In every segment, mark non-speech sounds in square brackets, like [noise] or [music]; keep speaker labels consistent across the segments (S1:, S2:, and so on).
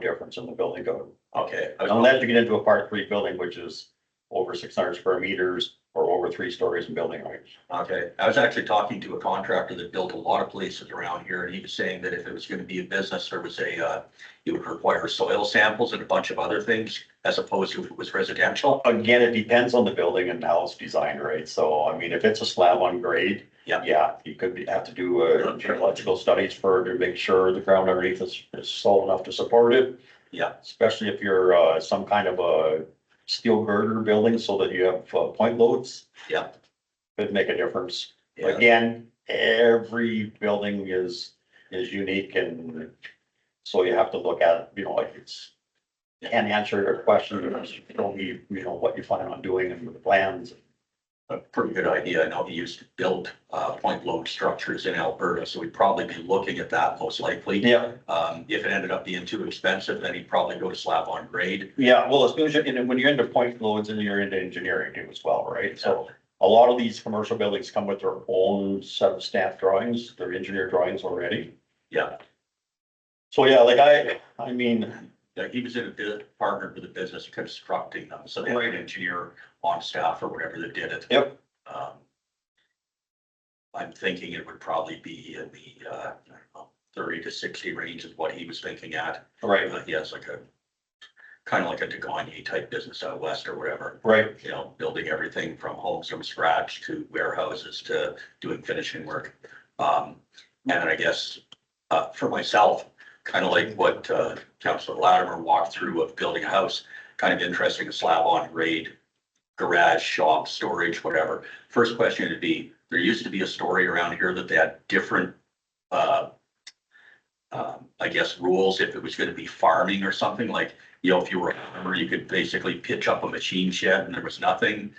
S1: difference in the building code.
S2: Okay. I was-
S1: Unless you get into a part three building, which is over six hundred square meters or over three stories in building height.
S2: Okay, I was actually talking to a contractor that built a lot of places around here, and he was saying that if it was gonna be a business, there was a, uh, it would require soil samples and a bunch of other things, as opposed to if it was residential.
S1: Again, it depends on the building and how it's designed, right? So, I mean, if it's a slab on grade.
S2: Yeah.
S1: Yeah, you could be- have to do uh, geological studies for, to make sure the ground underneath is, is solid enough to support it.
S2: Yeah.
S1: Especially if you're, uh, some kind of a steel girder building so that you have uh, point loads.
S2: Yeah.
S1: Could make a difference.
S2: Yeah,
S1: Again, every building is, is unique and so you have to look at, it, you know, like it's. Can't answer your question, you don't need, you know, what you plan on doing and the plans.
S2: a pretty good idea. I know he used to build, uh, point load structures in Alberta, so we'd probably be looking at that most likely.
S1: Yeah,
S2: Um, if it ended up being too expensive, then he'd probably go to slab on grade.
S1: yeah, well, as soon as you, and then when you're into point loads and you're into engineering too as well, right? So
S2: So,
S1: a lot of these commercial buildings come with their own set of staff drawings, their engineer drawings already.
S2: yeah,
S1: So yeah, like I, I mean,
S2: yeah, he was in a bit partnered with a business constructing them, so they had an
S1: Right.
S2: engineer on staff or whatever that did it.
S1: Yep.
S2: Um. I'm thinking it would probably be in the, uh, I don't know, thirty to sixty range is what he was thinking at.
S1: right,
S2: Uh, He has like a, kind of like a Degani type business out west or whatever,
S1: right,
S2: you know, building everything from homes from scratch to warehouses to doing finishing work. Um, and then I guess, uh, for myself, kind of like what, uh, Councilor Latimer walked through of building a house, kind of interesting, a slab on grade, garage, shop, storage, whatever. First question would be, there used to be a story around here that they had different, uh, um, I guess rules if it was gonna be farming or something, like, you know, if you were a farmer, you could basically pitch up a machine shed and there was nothing.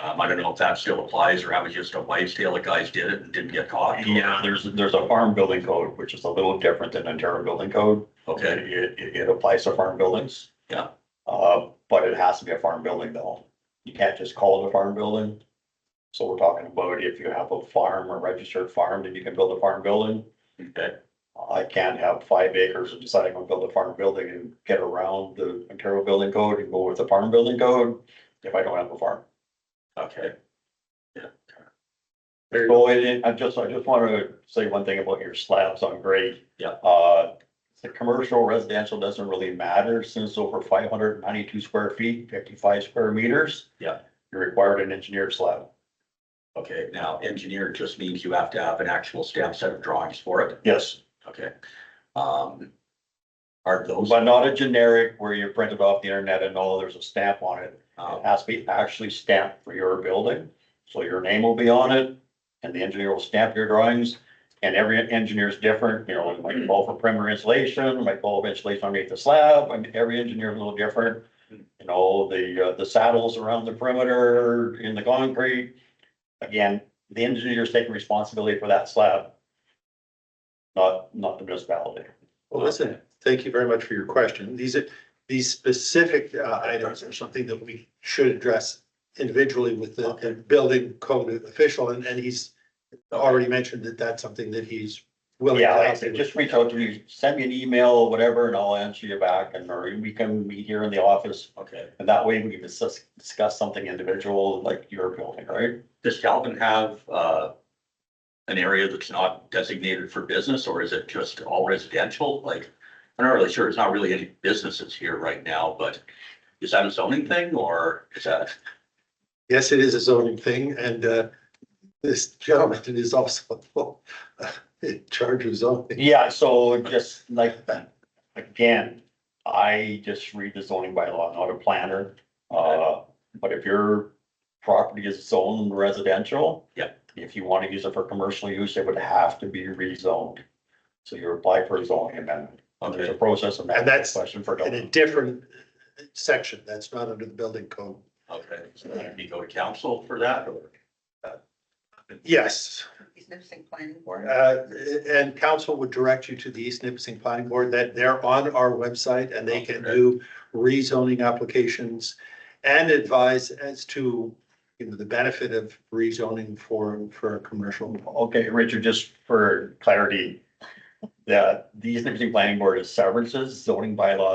S2: Um, I don't know if that still applies or that was just a wives tale, the guys did it and didn't get caught.
S1: yeah, there's, there's a farm building code, which is a little different than Ontario building code.
S2: Okay.
S1: It, it, it- it applies to farm buildings.
S2: Yeah.
S1: Uh, but it has to be a farm building though. You can't just call it a farm building. So we're talking about if you have a farm or registered farm, then you can build a farm building.
S2: Okay,
S1: I can't have five acres and decide I'm gonna build a farm building and get around the Ontario building code and go with the farm building code if I don't have a farm.
S2: okay.
S1: So it- it, Oh, I just, I just want to say one thing about your slabs on grade.
S2: Yeah.
S1: Uh, the commercial residential doesn't really matter since over five hundred ninety-two square feet, fifty-five square meters.
S2: Yeah.
S1: You're required an engineered slab.
S2: Okay, now engineer just means you have to have an actual stamp set of drawings for it.
S1: Yes,
S2: Okay. Um. Are those,
S1: but not a generic where you print it off the internet and all, there's a stamp on it. It
S2: um,
S1: uh, has to be actually stamped for your building. So your name will be on it and the engineer will stamp your drawings. And every engineer is different, you know, it might call for primer insulation, might call for insulation underneath the slab, and every engineer is a little different. You know, the, uh, the saddles around the perimeter in the concrete. Again, the engineer is taking responsibility for that slab. Not, not the municipality.
S3: Well, listen, thank you very much for your question. These are, these specific uh, items are something that we should address individually with the the building code official, and, and he's already mentioned that that's something that he's willing. to
S1: Yeah, like I
S3: help
S1: said,
S3: with.
S1: just reach out to me, send me an email, whatever, and I'll answer you back and or we can meet here in the office.
S2: okay,
S1: And that way we can discuss, discuss something individual like your building, right?
S2: does Calvin have, uh. An area that's not designated for business or is it just all residential? Like, I'm not really sure. It's not really any businesses here right now, but. Is that a zoning thing or is that,
S3: Yes, it is a zoning thing, and uh, this gentleman is also [laughs] uh, in charge of zoning.
S1: Yeah, so just like, again, I just read the zoning bylaw, not a planner. Uh, but if your property is zoned residential.
S2: Yep.
S1: If you want to use it for commercial use, it would have to be rezoned. So you apply for a zoning amendment. There's a
S2: okay,
S1: process and
S3: And that's-
S1: that's a question for.
S3: In a different section, that's not under the building code.
S2: okay, so then you go to council for that or?
S3: Yes,
S4: He's noticing planning board.
S3: Uh, and council would direct you to the East Nipissing Planning Board, that they're on our website and they can do rezoning applications and advise as to, you know, the benefit of rezoning for, for a commercial.
S1: Okay, Richard, just E for clarity, that the East Nipissing Planning Board is severances, zoning bylaws.